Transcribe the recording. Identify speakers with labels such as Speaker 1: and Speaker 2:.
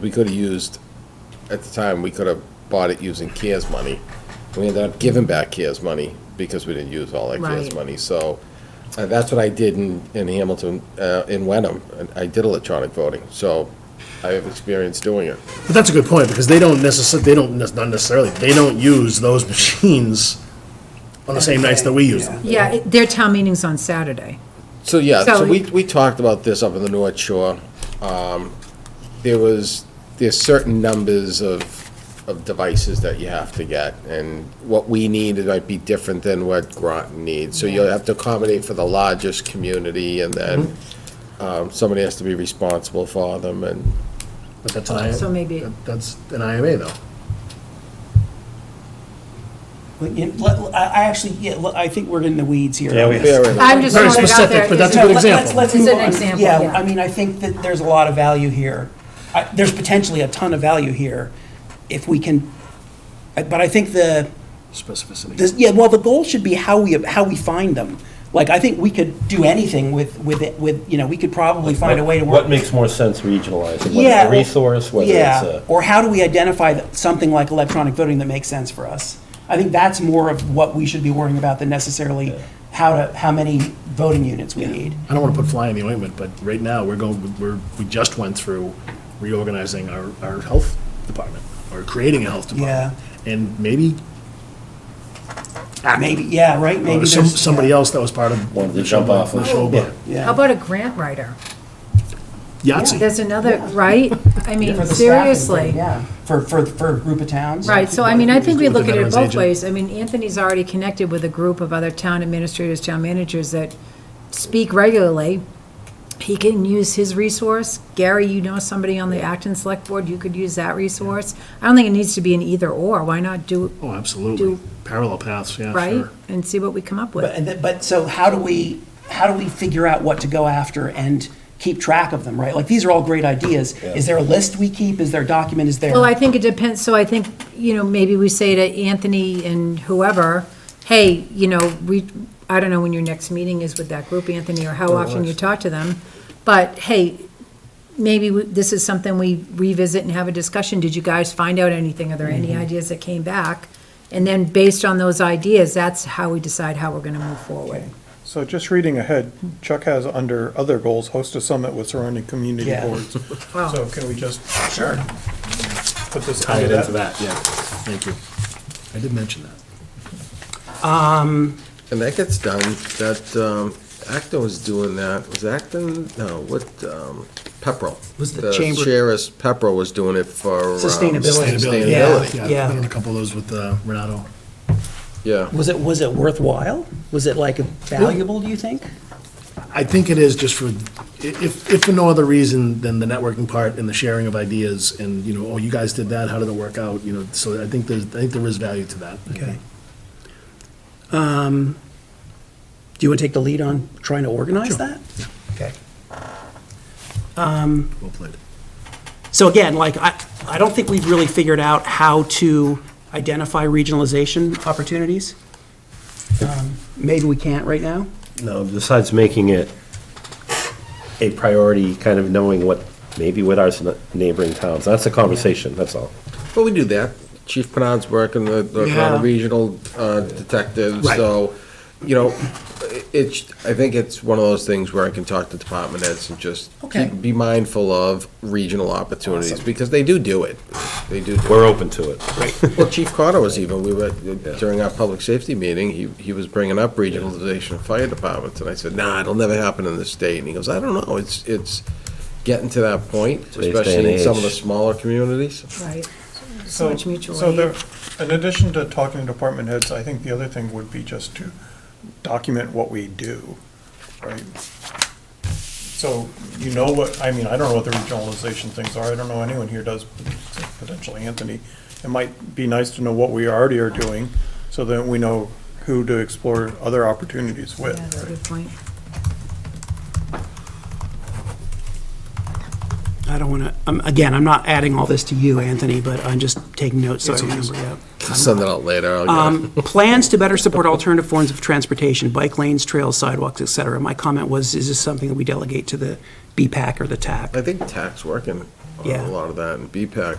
Speaker 1: We could have used, at the time, we could have bought it using CARES money. We ended up giving back CARES money because we didn't use all that CARES
Speaker 2: Right.
Speaker 1: money. So uh, that's what I did in, in Hamilton, uh, in Wenham. And I did electronic voting, so I have experience doing it.
Speaker 3: But that's a good point, because they don't necessarily, they don't, nec- not necessarily, they don't use those machines on the same nights that we use them.
Speaker 2: Yeah, it- their town meeting's on Saturday.
Speaker 1: So, yeah, so
Speaker 2: So-
Speaker 1: we, we talked about this up in the North Shore. Um, There was, there's certain numbers of, of devices that you have to get, and what we need, it might be different than what Groton needs. So you'll have to accommodate for the largest community, and then um, somebody has to be responsible for them, and
Speaker 3: But that's an IMA.
Speaker 2: So maybe-
Speaker 3: That's an IMA, though.
Speaker 4: But, you know, let- I I actually, yeah, let- I think we're in the weeds here.
Speaker 5: Yeah, we-
Speaker 1: fair enough.
Speaker 2: I'm just
Speaker 3: Very
Speaker 2: throwing it out
Speaker 3: specific,
Speaker 2: there.
Speaker 3: but that's a
Speaker 4: No,
Speaker 3: good
Speaker 4: let-
Speaker 3: example.
Speaker 4: let's- let's
Speaker 2: It's
Speaker 4: move
Speaker 2: an
Speaker 4: on.
Speaker 2: example, yeah.
Speaker 4: I mean, I think that there's a lot of value here. I- There's potentially a ton of value here if we can, I- but I think the,
Speaker 3: Specificity.
Speaker 4: this- yeah, well, the goal should be how we, how we find them. Like, I think we could do anything with, with, it with, you know, we could probably find a way to work.
Speaker 5: What makes more sense regionalized? Whether
Speaker 4: Yeah,
Speaker 5: it's
Speaker 4: or-
Speaker 5: a resource, whether
Speaker 4: yeah,
Speaker 5: it's a.
Speaker 4: Or how do we identify that- something like electronic voting that makes sense for us? I think that's more of what we should be worrying about than necessarily how to, how many voting units we need.
Speaker 3: I don't want to put fly in the ointment, but right now, we're going, we're, we just went through reorganizing our, our health department, or creating a health
Speaker 4: Yeah.
Speaker 3: department. And maybe
Speaker 4: Maybe, yeah, right,
Speaker 3: uh,
Speaker 4: maybe
Speaker 3: some,
Speaker 4: there's.
Speaker 3: somebody else that was part of.
Speaker 5: Wanted to
Speaker 3: the
Speaker 5: jump
Speaker 3: Shoba-
Speaker 5: off
Speaker 3: the
Speaker 5: of-
Speaker 3: Shoba.
Speaker 2: How
Speaker 4: Yeah,
Speaker 2: about a grant writer?
Speaker 3: Yahtzee.
Speaker 2: There's another, right? I
Speaker 4: for
Speaker 2: mean,
Speaker 4: the staffing thing,
Speaker 2: seriously.
Speaker 4: Yeah, for, for, for a group of towns.
Speaker 2: Right, so I mean, I think we
Speaker 3: With the
Speaker 2: look at it
Speaker 3: veterans
Speaker 2: both
Speaker 3: agent.
Speaker 2: ways. I mean, Anthony's already connected with a group of other town administrators, town managers that speak regularly. He can use his resource. Gary, you know somebody on the Acton Select Board, you could use that resource. I don't think it needs to be an either or. Why not do,
Speaker 3: Oh, absolutely.
Speaker 2: Do-
Speaker 3: Parallel paths, yeah,
Speaker 2: right?
Speaker 3: sure.
Speaker 2: And see what we come up
Speaker 4: But,
Speaker 2: with.
Speaker 4: and th- but, so how do we, how do we figure out what to go after and keep track of them, right? Like, these are all great ideas. Is there a list we keep? Is there a document? Is there?
Speaker 2: Well, I think it depends, so I think, you know, maybe we say to Anthony and whoever, hey, you know, we, I don't know when your next meeting is with that group, Anthony, or how often you talk to them, but hey, maybe we- this is something we revisit and have a discussion, did you guys find out anything, are there any
Speaker 6: Mm-hmm.
Speaker 2: ideas that came back? And then based on those ideas, that's how we decide how we're gonna move forward.
Speaker 6: So just reading ahead, Chuck has under other goals, host a summit with surrounding community
Speaker 4: Yeah.
Speaker 6: boards.
Speaker 2: Wow.
Speaker 6: So can we just
Speaker 4: Sure.
Speaker 6: put this
Speaker 3: Tie it
Speaker 6: under
Speaker 3: into
Speaker 6: that?
Speaker 3: that, yeah. Thank you. I did mention that.
Speaker 4: Um,
Speaker 1: And that gets done, that, um, Acton was doing that, was Acton, no, what, um, Pepperell.
Speaker 4: Was the chamber-
Speaker 1: Sheriff's Pepperell was doing it for. um,
Speaker 4: Sustainability.
Speaker 3: Sustainability,
Speaker 1: Sustainability,
Speaker 3: yeah.
Speaker 4: yeah.
Speaker 3: I've done a couple of those with uh, Renato.
Speaker 1: yeah.
Speaker 4: Was it, was it worthwhile? Was it like valuable, do you think?
Speaker 3: I think it is just for, if, if for no other reason than the networking part and the sharing of ideas and, you know, oh, you guys did that, how did it work out, you know, so I think there's, I think there is value to that.
Speaker 4: Okay. Um, Do you want to take the lead on trying to organize that? Okay.
Speaker 3: Well played.
Speaker 4: So again, like, I, I don't think we've really figured out how to identify regionalization opportunities. Um, Maybe we can't right now.
Speaker 5: No, besides making it a priority, kind of knowing what, maybe with our s- neighboring towns. That's a conversation, that's all.
Speaker 1: Well, we do that. Chief Penard's working the, the
Speaker 4: Yeah.
Speaker 1: regional uh, detective, so, you know, i- it's, I think it's one of those things where I can talk to department heads and just
Speaker 4: Okay.
Speaker 1: keep- be mindful of regional opportunities, because they do do it. They do do it.
Speaker 5: We're open to it.
Speaker 1: Well, Chief Carter was even, we were, during our public safety meeting, he, he was bringing up regionalization of fire departments, and I said, nah, it'll never happen in this state. And he goes, I don't know, it's, it's getting to that point,
Speaker 5: Today's day
Speaker 1: especially in
Speaker 5: and
Speaker 1: some of the
Speaker 5: age.
Speaker 1: smaller communities.
Speaker 2: Right, so
Speaker 6: So,
Speaker 2: much mutual
Speaker 6: so there,
Speaker 2: aid.
Speaker 6: in addition to talking to department heads, I think the other thing would be just to document what we do, right? So you know what, I mean, I don't know what the regionalization things are. I don't know anyone here does, except potentially Anthony. It might be nice to know what we already are doing, so that we know who to explore other opportunities
Speaker 2: Yeah,
Speaker 6: with.
Speaker 2: that's a
Speaker 6: right?
Speaker 2: good point.
Speaker 4: I don't want to, um, again, I'm not adding all this to you, Anthony, but I'm just taking notes so I remember, yeah.
Speaker 1: Send that out later. I'll get it.
Speaker 4: Um, Plans to better support alternative forms of transportation, bike lanes, trails, sidewalks, et cetera. My comment was, is this something that we delegate to the BPAC or the TAC?
Speaker 1: I think tax working on
Speaker 4: Yeah.
Speaker 1: a lot of that, and BPAC